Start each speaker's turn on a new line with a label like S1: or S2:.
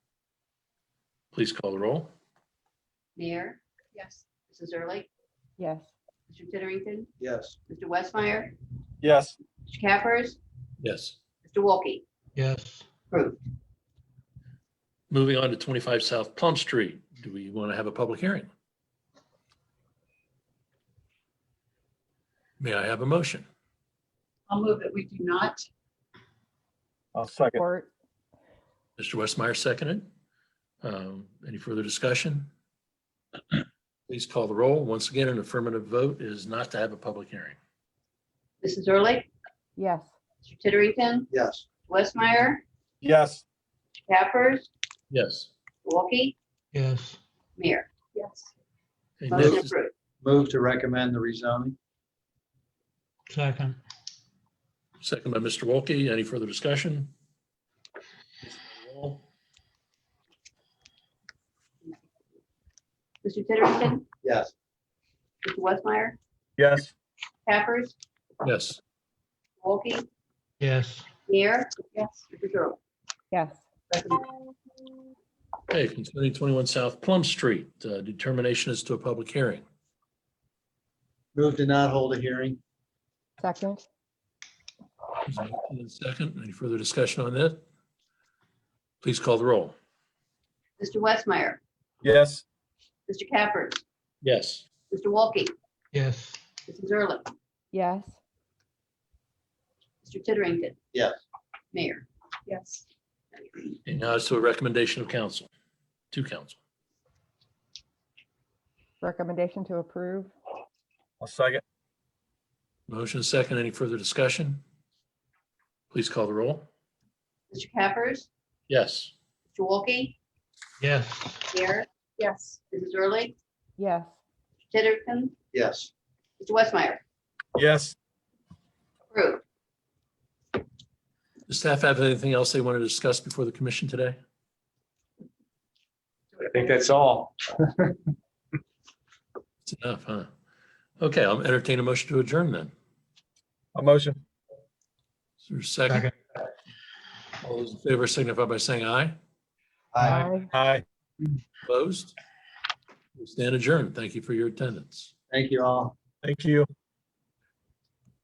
S1: Please call the roll.
S2: Mayor,
S3: Yes.
S2: Mrs. Early,
S4: yes,
S2: Mr. Titterington,
S5: Yes.
S2: Mr. Westmeyer,
S5: Yes.
S2: Mr. Cappers,
S1: Yes.
S2: Mr. Wolke.
S6: yes,
S2: Approved.
S1: Moving on to 25 South Plum Street. Do we want to have a public hearing? May I have a motion?
S3: I'll move that we do not.
S5: I'll second.
S4: or,
S1: Mr. Westmeyer seconded. Um, Any further discussion? Please call the roll. Once again, an affirmative vote is not to have a public hearing.
S2: Mrs. Early,
S4: yes,
S2: Mr. Titterington,
S5: Yes.
S2: Westmeyer,
S5: Yes.
S2: Cappers,
S1: Yes.
S2: Wolke,
S6: yes,
S2: Mayor.
S3: Yes.
S1: Okay,
S2: Motion
S1: next is-
S2: approved.
S5: Move to recommend the rezoning?
S6: second,
S1: Second by Mr. Wolke. Any further discussion? Please call the roll.
S2: Mr. Titterington,
S5: Yes.
S2: Mr. Westmeyer,
S5: Yes.
S2: Cappers,
S1: Yes.
S2: Wolke,
S6: yes,
S2: Mayor,
S3: Yes.
S2: Mrs. Early.
S4: yes,
S1: Okay, concerning 21 South Plum Street, uh, determination as to a public hearing.
S5: Move to not hold a hearing?
S4: second,
S1: Is there a Second, any further discussion on that? Please call the roll.
S2: Mr. Westmeyer,
S5: Yes.
S2: Mr. Cappers,
S1: Yes.
S2: Mr. Wolke,
S6: yes,
S2: Mrs. Early,
S4: yes,
S2: Mr. Titterington.
S5: Yes.
S2: Mayor.
S3: Yes.
S1: And now it's to a recommendation of council, to council.
S4: recommendation to approve,
S5: I'll second.
S1: Motion second, any further discussion? Please call the roll.
S2: Mr. Cappers,
S1: Yes.
S2: Mr. Wolke,
S6: yes,
S2: Mayor,
S3: Yes.
S2: Mrs. Early,
S4: yes,
S2: Titterington,
S5: Yes.
S2: Mr. Westmeyer,
S5: Yes.
S2: approved.
S1: Does staff have anything else they want to discuss before the commission today?
S5: I think that's all.
S1: It's enough, huh? Okay, I'll entertain a motion to adjourn then.
S5: A motion?
S1: Is there a second?
S6: Second.
S1: All those in favor signify by saying aye.
S5: Aye.
S4: aye,
S5: Aye.
S1: Opposed? We Stand adjourned. Thank you for your attendance.
S5: Thank you all. Thank you.